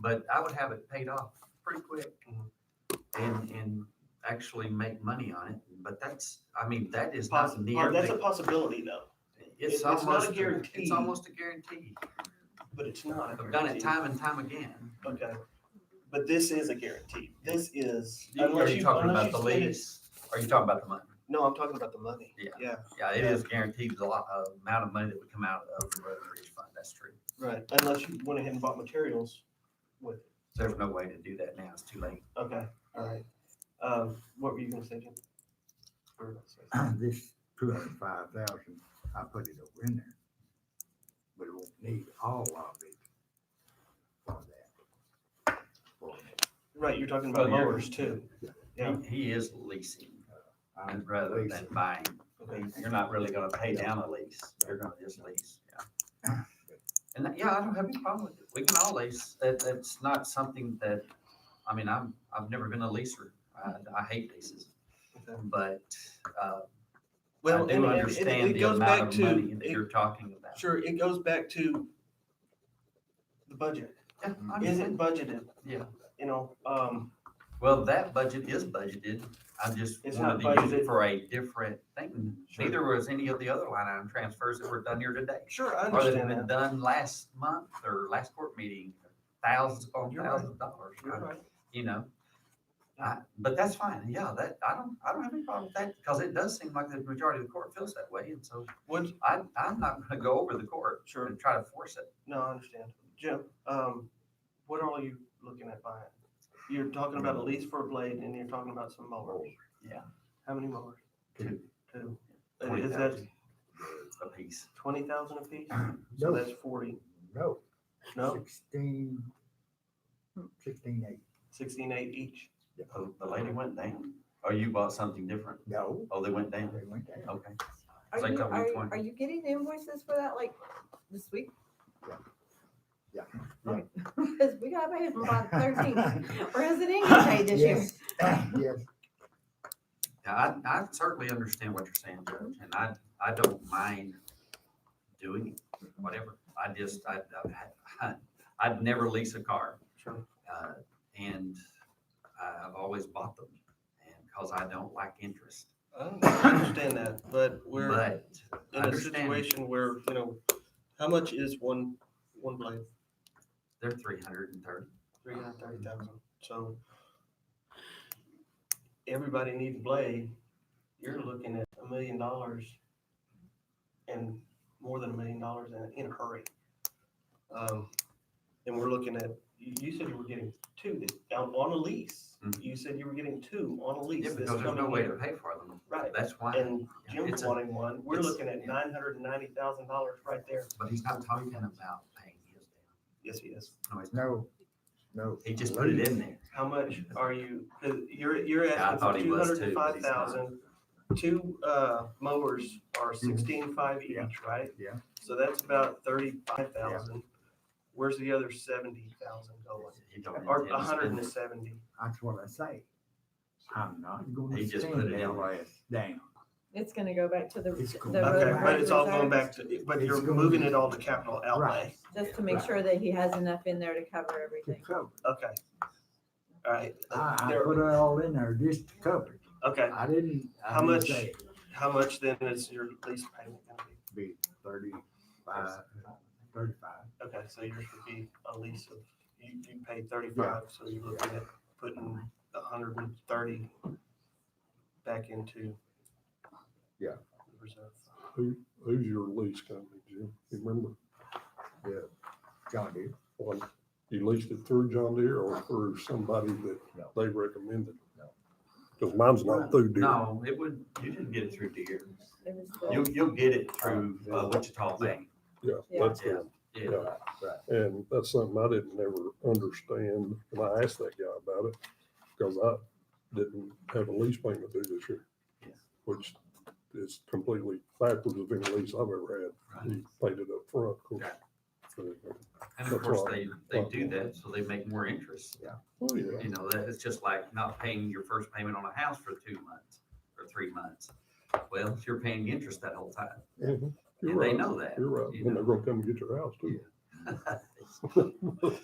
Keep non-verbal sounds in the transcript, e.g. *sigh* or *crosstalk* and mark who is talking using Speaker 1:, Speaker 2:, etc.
Speaker 1: But I would have it paid off pretty quick and, and actually make money on it. But that's, I mean, that is not
Speaker 2: Possi- oh, that's a
Speaker 1: nearly,
Speaker 2: possibility though,
Speaker 1: it's
Speaker 2: it's not a
Speaker 1: almost,
Speaker 2: guarantee.
Speaker 1: it's almost a guarantee.
Speaker 2: but it's not. a
Speaker 1: I've done it
Speaker 2: guarantee.
Speaker 1: time and time again.
Speaker 2: Okay, but this is a guarantee. This is
Speaker 1: You- Are
Speaker 2: unless
Speaker 1: you
Speaker 2: you
Speaker 1: talking
Speaker 2: unless
Speaker 1: about
Speaker 2: you
Speaker 1: the
Speaker 2: spend it-
Speaker 1: lease? Are you talking about the money?
Speaker 2: No, I'm talking about the money.
Speaker 1: Yeah.
Speaker 2: Yeah,
Speaker 1: Yeah, it is guaranteed the lot, uh, amount of money that would come out of the road bridge fund. That's true.
Speaker 2: right. Unless you went ahead and bought materials with. it.
Speaker 1: There's no way to do that now. It's too late.
Speaker 2: Okay, all right. Um, what were you gonna say, Jim? Or-
Speaker 3: This two hundred five thousand, I put it over in there. But it won't need all of it for that. For that.
Speaker 2: Right, you're talking
Speaker 1: Oh,
Speaker 2: about
Speaker 1: you're-
Speaker 2: mowers too. Yeah.
Speaker 1: He- He is leasing
Speaker 3: I'm
Speaker 1: rather than
Speaker 3: leasing,
Speaker 1: buying.
Speaker 2: Okay.
Speaker 1: You're not really gonna pay down a lease. You're gonna just lease, yeah. And that, yeah, I don't have any problem with it. We can all lease. That, that's not something that, I mean, I'm, I've never been a leaser. I, I hate leases.
Speaker 2: Okay. But
Speaker 1: But, uh, I
Speaker 2: Well, and
Speaker 1: do
Speaker 2: and it-
Speaker 1: understand
Speaker 2: it
Speaker 1: the
Speaker 2: goes back
Speaker 1: amount of money
Speaker 2: to,
Speaker 1: that
Speaker 2: it-
Speaker 1: you're talking about.
Speaker 2: sure, it goes back to the budget.
Speaker 1: Yeah, I
Speaker 2: Is it
Speaker 1: understand.
Speaker 2: budgeted?
Speaker 1: Yeah.
Speaker 2: You know, um,
Speaker 1: Well, that budget is budgeted. I just
Speaker 2: It's
Speaker 1: wanted
Speaker 2: not
Speaker 1: to use it
Speaker 2: budgeted.
Speaker 1: for a different thing.
Speaker 2: Sure.
Speaker 1: Neither was any of the other line item transfers that were done here today.
Speaker 2: sure, I
Speaker 1: Or that have
Speaker 2: understand
Speaker 1: been
Speaker 2: that.
Speaker 1: done last month or last court meeting, thousands upon
Speaker 2: You're right.
Speaker 1: thousands of dollars,
Speaker 2: You're right.
Speaker 1: you know? I- But that's fine, yeah, that, I don't, I don't have any problem with that, because it does seem like the majority of the court feels that way, and so
Speaker 2: Would,
Speaker 1: I, I'm not gonna go over the court
Speaker 2: sure.
Speaker 1: and try to force it.
Speaker 2: No, I understand. Jim, um, what all are you looking at buying? You're talking about a lease for a blade and you're talking about some mowers.
Speaker 1: Yeah.
Speaker 2: How many mowers?
Speaker 1: Two.
Speaker 2: Two. And Is that
Speaker 1: A piece.
Speaker 2: twenty thousand a piece? So
Speaker 3: No,
Speaker 2: that's forty,
Speaker 3: no,
Speaker 2: no,
Speaker 3: sixteen, sixteen eight,
Speaker 2: sixteen eight each.
Speaker 1: Oh, the lady went down, or you bought something different,
Speaker 3: no,
Speaker 1: oh, they went down,
Speaker 3: they went down.
Speaker 1: okay. It's
Speaker 4: Are
Speaker 1: like
Speaker 4: you,
Speaker 1: that one
Speaker 4: are,
Speaker 1: point.
Speaker 4: are you getting invoices for that like this week?
Speaker 3: Yeah.
Speaker 4: Okay. *laughs* Because we gotta pay them by thirteen,
Speaker 3: *laughs*
Speaker 4: or has it any paid this year?
Speaker 3: Yes, yes,
Speaker 1: Now, I, I certainly understand what you're saying, Judge, and I, I don't mind doing it, whatever. I just, I, I, I'd never lease a car.
Speaker 2: Sure.
Speaker 1: Uh, and I- I've always bought them, and, cause I don't like interest.
Speaker 2: I understand that, but we're
Speaker 1: But
Speaker 2: in a
Speaker 1: understand.
Speaker 2: situation where, you know, how much is one, one blade?
Speaker 1: they're three hundred and thirty.
Speaker 2: Three hundred thirty thousand. So everybody needs a blade. You're looking at a million dollars and more than a million dollars in, in a hurry. Um, and we're looking at, you, you said you were getting two this, on, on a lease.
Speaker 1: Mhm.
Speaker 2: You said you were getting two on a lease
Speaker 1: Yeah,
Speaker 2: this
Speaker 1: because there's no
Speaker 2: coming
Speaker 1: way to
Speaker 2: year.
Speaker 1: pay for them.
Speaker 2: Right.
Speaker 1: That's why,
Speaker 2: And Jim's
Speaker 1: It's a-
Speaker 2: wanting one. We're
Speaker 1: it's-
Speaker 2: looking at nine hundred and ninety thousand dollars right there.
Speaker 1: but he's not talking about paying his down.
Speaker 2: Yes, he is.
Speaker 1: No, he's not.
Speaker 3: no, no.
Speaker 1: He just put it in there.
Speaker 2: How much are you, 'cause you're, you're
Speaker 1: Yeah, I
Speaker 2: asking
Speaker 1: thought
Speaker 2: for
Speaker 1: he
Speaker 2: two
Speaker 1: was too,
Speaker 2: hundred and
Speaker 1: but
Speaker 2: five
Speaker 1: he's not.
Speaker 2: thousand. Two, uh, mowers are sixteen five
Speaker 3: Yeah.
Speaker 2: each, right?
Speaker 3: Yeah.
Speaker 2: So that's about thirty-five thousand. Where's the other seventy thousand going?
Speaker 1: He don't
Speaker 2: Or
Speaker 1: intend
Speaker 2: a
Speaker 1: to
Speaker 2: hundred
Speaker 1: spend
Speaker 2: and
Speaker 1: it.
Speaker 2: seventy?
Speaker 3: That's what I say. I'm not gonna
Speaker 1: He just
Speaker 3: stand
Speaker 1: put it
Speaker 3: that
Speaker 1: in.
Speaker 3: ass down.
Speaker 4: It's gonna go back to the.
Speaker 3: It's
Speaker 4: the
Speaker 3: going
Speaker 4: road
Speaker 3: back.
Speaker 2: Okay,
Speaker 4: and
Speaker 2: but it's all going
Speaker 4: reserve,
Speaker 2: back to, but
Speaker 3: It's
Speaker 2: you're
Speaker 3: going-
Speaker 2: moving it all to capital outlay.
Speaker 3: Right.
Speaker 4: Just to make
Speaker 3: Right.
Speaker 4: sure that he has enough in there to cover
Speaker 3: To
Speaker 4: everything.
Speaker 3: cover.
Speaker 2: Okay. All right.
Speaker 3: I, I
Speaker 2: There-
Speaker 3: put it all in there just to cover. it.
Speaker 2: Okay,
Speaker 3: I didn't. I
Speaker 2: How
Speaker 3: didn't
Speaker 2: much-
Speaker 3: say it.
Speaker 2: how much then is your lease payment gonna be?
Speaker 3: Be thirty-five, thirty-five.
Speaker 2: Okay, so yours would be a lease of, you, you paid thirty-five, so you're looking at putting a hundred and thirty back into.
Speaker 3: Yeah.
Speaker 2: the Reserve.
Speaker 5: Who, who's your lease company, Jim? You remember
Speaker 3: John Deere.
Speaker 5: when you leased it through John Deere or through somebody that
Speaker 3: No.
Speaker 5: they recommended?
Speaker 3: No.
Speaker 5: Because mine's not through Deere.
Speaker 1: No, it would, you didn't get it through Deere.
Speaker 4: It was the-
Speaker 1: You'll, you'll get it through uh, Wichita Bank.
Speaker 5: Yeah,
Speaker 4: Yeah.
Speaker 5: that's them.
Speaker 1: Yeah,
Speaker 5: And that's something I didn't ever understand. And I asked that guy about it because I didn't have a lease payment due this year.
Speaker 1: Yeah.
Speaker 5: Which is completely backwards of any lease I've ever had.
Speaker 1: right.
Speaker 5: You paid it up front, of course.
Speaker 1: Yeah.
Speaker 5: So,
Speaker 1: And of course, they, they do that so they make more interest.
Speaker 5: Oh, yeah.
Speaker 1: You know, that it's just like not paying your first payment on a house for two months or three months. Well, you're paying interest that whole time.
Speaker 5: Mhm. You're
Speaker 1: And they
Speaker 5: right.
Speaker 1: know that.
Speaker 5: You're right.
Speaker 1: you
Speaker 5: When
Speaker 1: know.
Speaker 5: they're gonna come and get your house too.